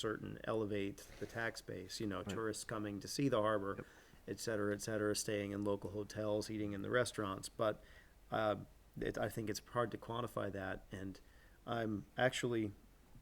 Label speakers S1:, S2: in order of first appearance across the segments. S1: certain elevate the tax base, you know, tourists coming to see the harbor, et cetera, et cetera, staying in local hotels, eating in the restaurants. But uh, it, I think it's hard to quantify that. And I'm actually,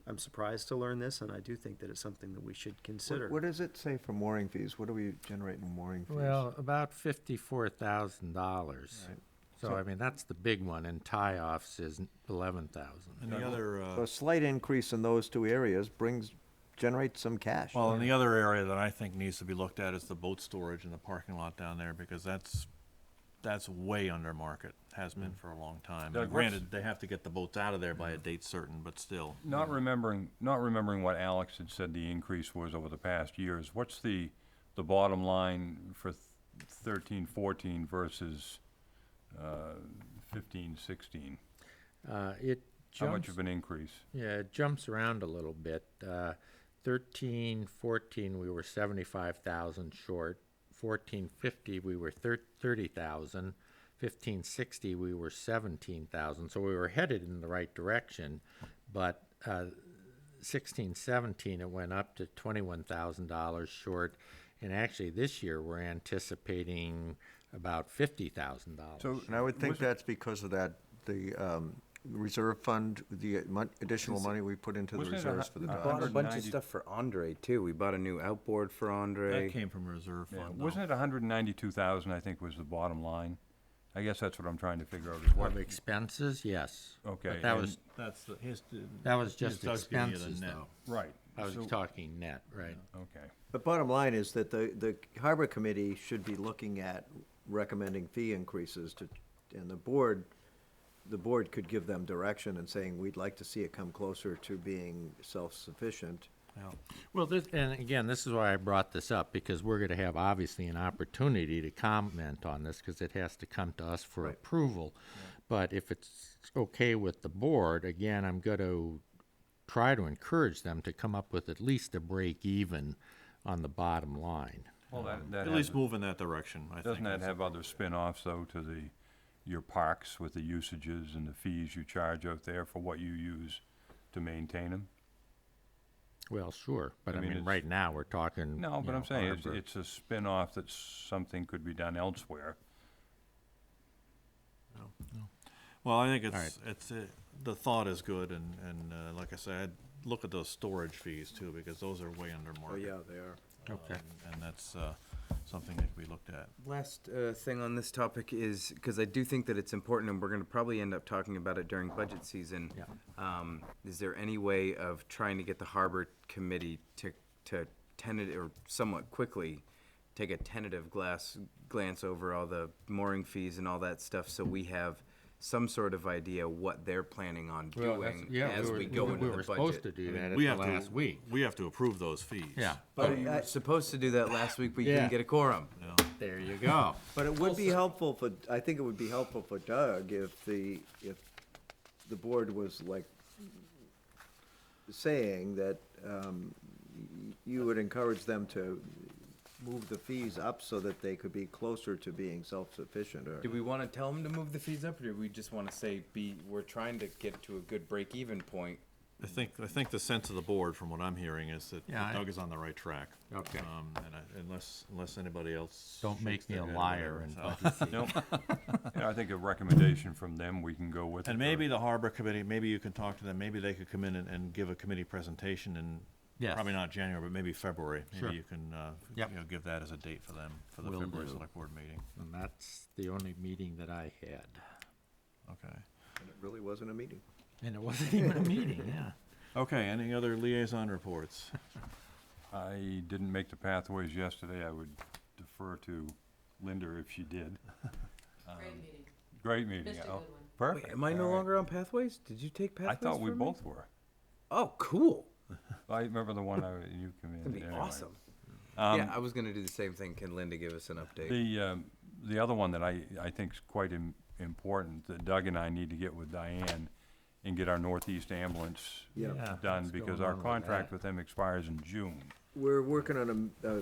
S1: I'm surprised to learn this, and I do think that it's something that we should consider.
S2: What- What does it say for mooring fees? What do we generate in mooring fees?
S3: Well, about fifty-four thousand dollars.
S2: Right.
S3: So, I mean, that's the big one, and tie-offs is eleven thousand.
S4: And the other,
S2: So
S4: uh,
S2: a slight increase in those two areas brings, generates some cash.
S4: well, and the other area that I think needs to be looked at is the boat storage in the parking lot down there, because that's, that's way under market, has been for a long time.
S5: Mm. Doug,
S4: And
S5: what's-
S4: Granted, they have to get the boats out of there by a date certain, but still.
S5: Not remembering, not remembering what Alex had said the increase was over the past years, what's the, the bottom line for th- thirteen, fourteen versus, uh, fifteen, sixteen?
S3: Uh, it
S5: How much
S3: jumps,
S5: of an increase?
S3: yeah, it jumps around a little bit. Uh, thirteen, fourteen, we were seventy-five thousand short. Fourteen, fifty, we were thir- thirty thousand. Fifteen, sixty, we were seventeen thousand, so we were headed in the right direction. But, uh, sixteen seventeen it went up to twenty one thousand dollars short and actually this year we're anticipating about fifty thousand dollars
S5: So,
S2: And I would think
S5: was it-
S2: that's because of that, the um, reserve fund, the mon- additional money we put into the
S5: Wasn't it a uh,
S2: reserves
S5: hu-
S2: for the
S5: a
S2: docks.
S6: Bought a bunch of
S5: 190
S6: stuff for Andre too. We bought a new outboard for
S4: That
S6: Andre.
S4: came from reserve
S5: yeah,
S4: fund, though.
S5: wasn't it hundred and ninety-two thousand, I think was the bottom line? I guess that's what I'm trying to figure out is what,
S3: of expenses yes
S5: Okay,
S3: but that
S5: and-
S3: was
S4: That's the, his.
S3: that was just
S4: Doug's giving you the
S3: expenses
S4: net.
S3: though
S5: right.
S3: I was
S5: so-
S3: talking net right
S5: Okay,
S2: The bottom line is that the, the harbor committee should be looking at recommending fee increases to, and the board, the board could give them direction and saying, we'd like to see it come closer to being self-sufficient.
S3: Well, this, and again, this is why I brought this up, because we're gonna have obviously an opportunity to comment on this, because it has to come to us for approval. But if it's okay with the board, again, I'm gonna try to encourage them to come up with at least a break even on the bottom line.
S5: well, that, that
S4: At least
S5: has-
S4: move in that direction, I think.
S5: Doesn't that
S4: that's-
S5: have other spin-offs though to the, your parks with the usages and the fees you charge out there for what you use to maintain them?
S3: Well, sure, but I
S5: mean,
S3: mean,
S5: it's-
S3: right now, we're talking.
S5: No,
S3: you
S5: but
S3: know,
S5: I'm saying it's,
S3: harbor.
S5: it's a spin-off that something could be done elsewhere.
S4: Well, I think it's, it's, uh, the thought is good, and, and uh, like I said, I'd look at those storage fees too, because those are way under market.
S2: Oh, they are.
S3: Okay.
S4: Um, And that's uh, something that we looked at.
S6: Last uh, thing on this topic is because I do think that it's important, and we're going to probably end up talking about it during budget season.
S3: Yeah.
S6: Um, is there any way of trying to get the harbor committee to to tentative or somewhat quickly take a tentative glass glance over all the mooring fees and all that stuff, so we have some sort of idea what they're planning on
S3: Well,
S6: doing
S3: that's- yeah,
S6: as
S3: were-
S6: we go
S3: We
S6: into the
S3: were
S6: budget.
S3: supposed to do that at
S4: We
S3: the
S4: have to-
S3: last week.
S4: We have to approve those fees.
S3: Yeah,
S6: But you were supposed to do that last week, but you
S3: Yeah.
S6: didn't get a quorum.
S3: there you go.
S2: But it would be helpful for, I think it would be helpful for Doug if the, if the board was like saying that um, y- you would encourage them to move the fees up so that they could be closer to being self-sufficient or.
S6: Do we want to tell them to move the fees up, or do we just want to say be we're trying to get to a good break even point?
S4: I think, I think the sense of the board, from what I'm hearing, is that
S3: Yeah, I-
S4: Doug is on the right track.
S3: Okay.
S4: Um, And I- unless, unless anybody else.
S3: Don't make
S4: shakes
S3: me
S4: their
S3: a
S4: head or
S3: liar
S4: whatever,
S3: and
S4: so-
S3: budget
S5: No, yeah, I think a recommendation from them, we can go with. it,
S4: And
S5: or-
S4: maybe the harbor committee, maybe you can talk to them, maybe they could come in and, and give a committee presentation in,
S3: Yes.
S4: probably not January, but maybe February.
S3: Sure.
S4: Maybe you can, uh, you
S3: Yep.
S4: know, give that as a date for them, for the
S3: Will
S4: February
S3: do.
S4: select board meeting.
S3: And that's the only meeting that I had.
S4: Okay.
S2: It really wasn't a meeting.
S3: And it wasn't even a meeting, yeah.
S4: Okay, any other liaison reports?
S5: I didn't make the pathways yesterday, I would defer to Linda if she did.
S7: Great meeting.
S5: Great meeting,
S7: Missed a
S5: Al.
S7: good one.
S5: Perfect.
S6: am I no
S5: all right.
S6: longer on pathways? Did you take
S5: I
S6: pathways?
S5: thought we
S6: from
S5: both were.
S6: Me? Oh, cool.
S5: I remember the one I, you committed.
S6: That'd be
S5: anyway.
S6: awesome.
S5: Um,
S6: yeah, I was gonna do the same thing. Can Linda give us an update?
S5: The, um, the other one that I, I think's quite im- important, that Doug and I need to get with Diane and get our Northeast ambulance
S2: Yeah.
S3: Yeah,
S5: done,
S3: what's
S5: because
S3: going
S5: our
S3: on with
S5: contract
S3: that?
S5: with them expires in June.
S2: We're working on a, uh,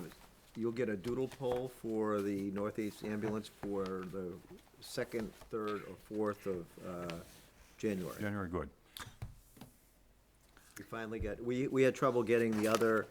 S2: you'll get a doodle poll for the Northeast Ambulance for the second, third, or fourth of uh, January.
S5: January, good.
S2: We finally got, we, we had trouble getting the other